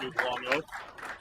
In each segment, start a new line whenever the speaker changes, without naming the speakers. do the long oath?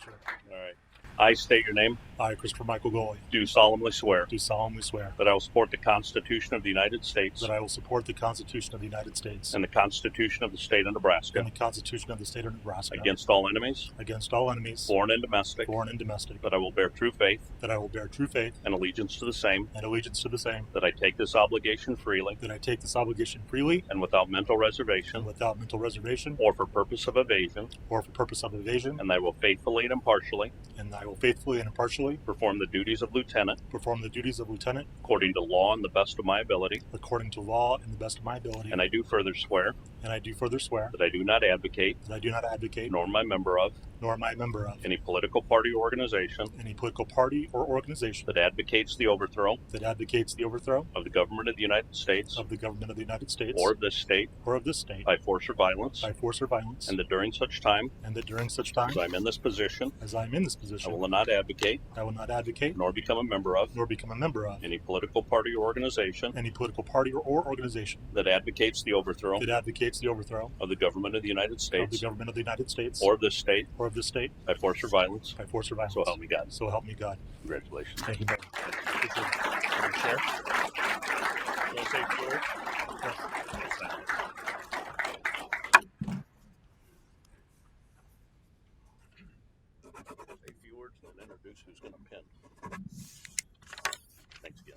Sure.
All right. I state your name,
I, Christopher Michael Goley,
do solemnly swear
do solemnly swear
that I will support the Constitution of the United States
that I will support the Constitution of the United States
and the Constitution of the State of Nebraska
and the Constitution of the State of Nebraska
against all enemies,
against all enemies,
foreign and domestic,
foreign and domestic,
that I will bear true faith
that I will bear true faith
and allegiance to the same,
and allegiance to the same,
that I take this obligation freely
that I take this obligation freely
and without mental
and
reservation
without mental reservation
or for purpose of evasion,
or for purpose of evasion,
and that I will faithfully and impartially
and I will faithfully and impartially
perform the duties of lieutenant
perform the duties of lieutenant
according to law and the best of my ability.
according to law and the best of my ability.
And I do further swear
And I do further swear
that I do not advocate,
that I do not advocate
nor am I a member of,
nor am I a member of
any political party or organization
any political party or organization
that advocates the overthrow
that advocates the overthrow
of the government of the United States
of the government of the United States
or of this state
or of this state
by force or violence,
by force or violence,
and that during such time
and that during such time
as I'm in this position,
as I am in this
I
position,
will not advocate
I will not advocate
nor become a member of
nor become a member of
any political party or organization
any political party or, or organization
that advocates the overthrow
that advocates the overthrow
of the government of the United
of the
States
government of the United States
or of this state
or of this state
by force or violence.
by force or violence.
So help me God.
So help me God.
Congratulations.
Thank you. very much.
Chair? Wanna take four? Say a few words and then introduce who's gonna pin. Thanks again.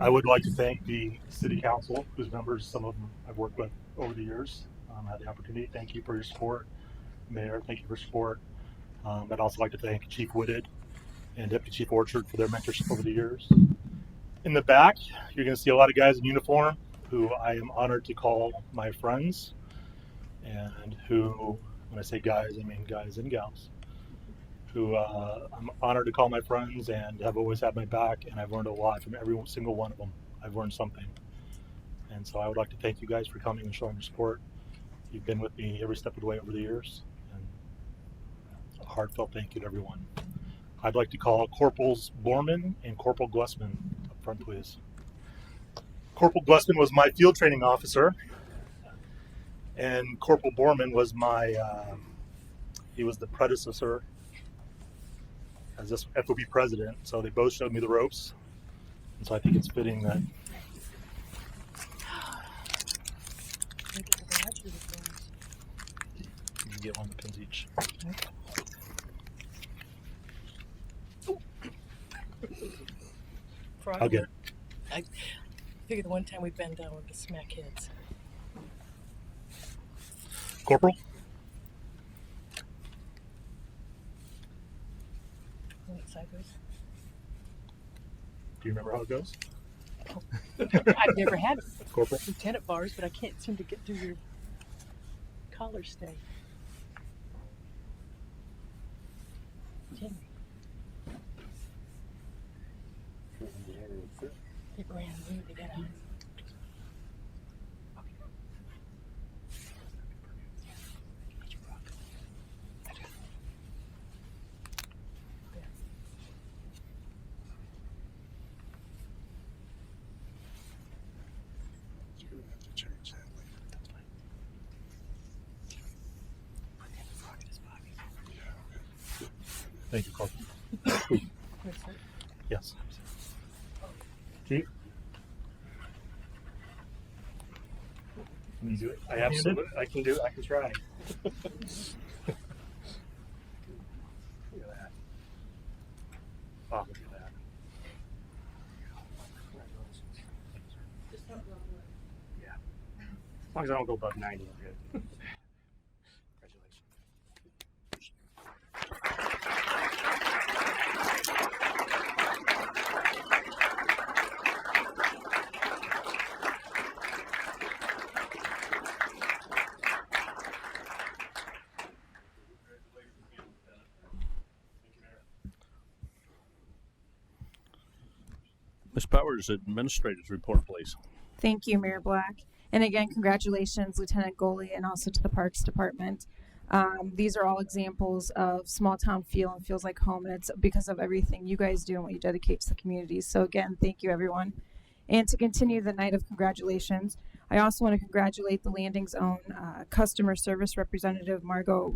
I would like to thank the city council, whose members, some of them I've worked with over the years, um, had the opportunity. Thank you for your support, Mayor. Thank you for your support. Um, I'd also like to thank Chief Whitted and Deputy Chief Orchard for their mentorship over the years. In the back, you're going to see a lot of guys in uniform who I am honored to call my friends, and who, when I say guys, I mean guys and gals, who uh, I'm honored to call my friends and have always had my back, and I've learned a lot from every single one of them. I've learned something, and so I would like to thank you guys for coming and showing your support. You've been with me every step of the way over the years, and a heartfelt thank you to everyone. I'd like to call Corporals Borman and Corporal Glessman up front, please. Corporal Glessman was my field training officer, and Corporal Borman was my, uh, he was the predecessor as this FOB president. So they both showed me the ropes. And so I think it's fitting that you get one of the pins each. I'll get it.
Figure the one time we bend down with the smack heads.
Corporal?
Isn't it sideways?
Do you remember how it goes?
I've never had
Corporal?
lieutenant bars, but I can't seem to get through your collar stay. Henry, they brand new. They got a
Thank you, Corporal.
bracelet.
Yes. Chief? Can you do it?
I absolutely, I can do, I can try. Look at that. Oh, look at that. Yeah. As long as I don't go above ninety, I'm good. Congratulations.
Ms. Powers, administrator's report, please.
Thank you, Mayor Black. And again, congratulations, Lieutenant Goley, and also to the Parks Department. Um, these are all examples of small town feel and feels like home, and it's because of everything you guys do and what you dedicate to the community. So again, thank you, everyone. And to continue the night of congratulations, I also want to congratulate the Landing Zone uh, Customer Service Representative Margot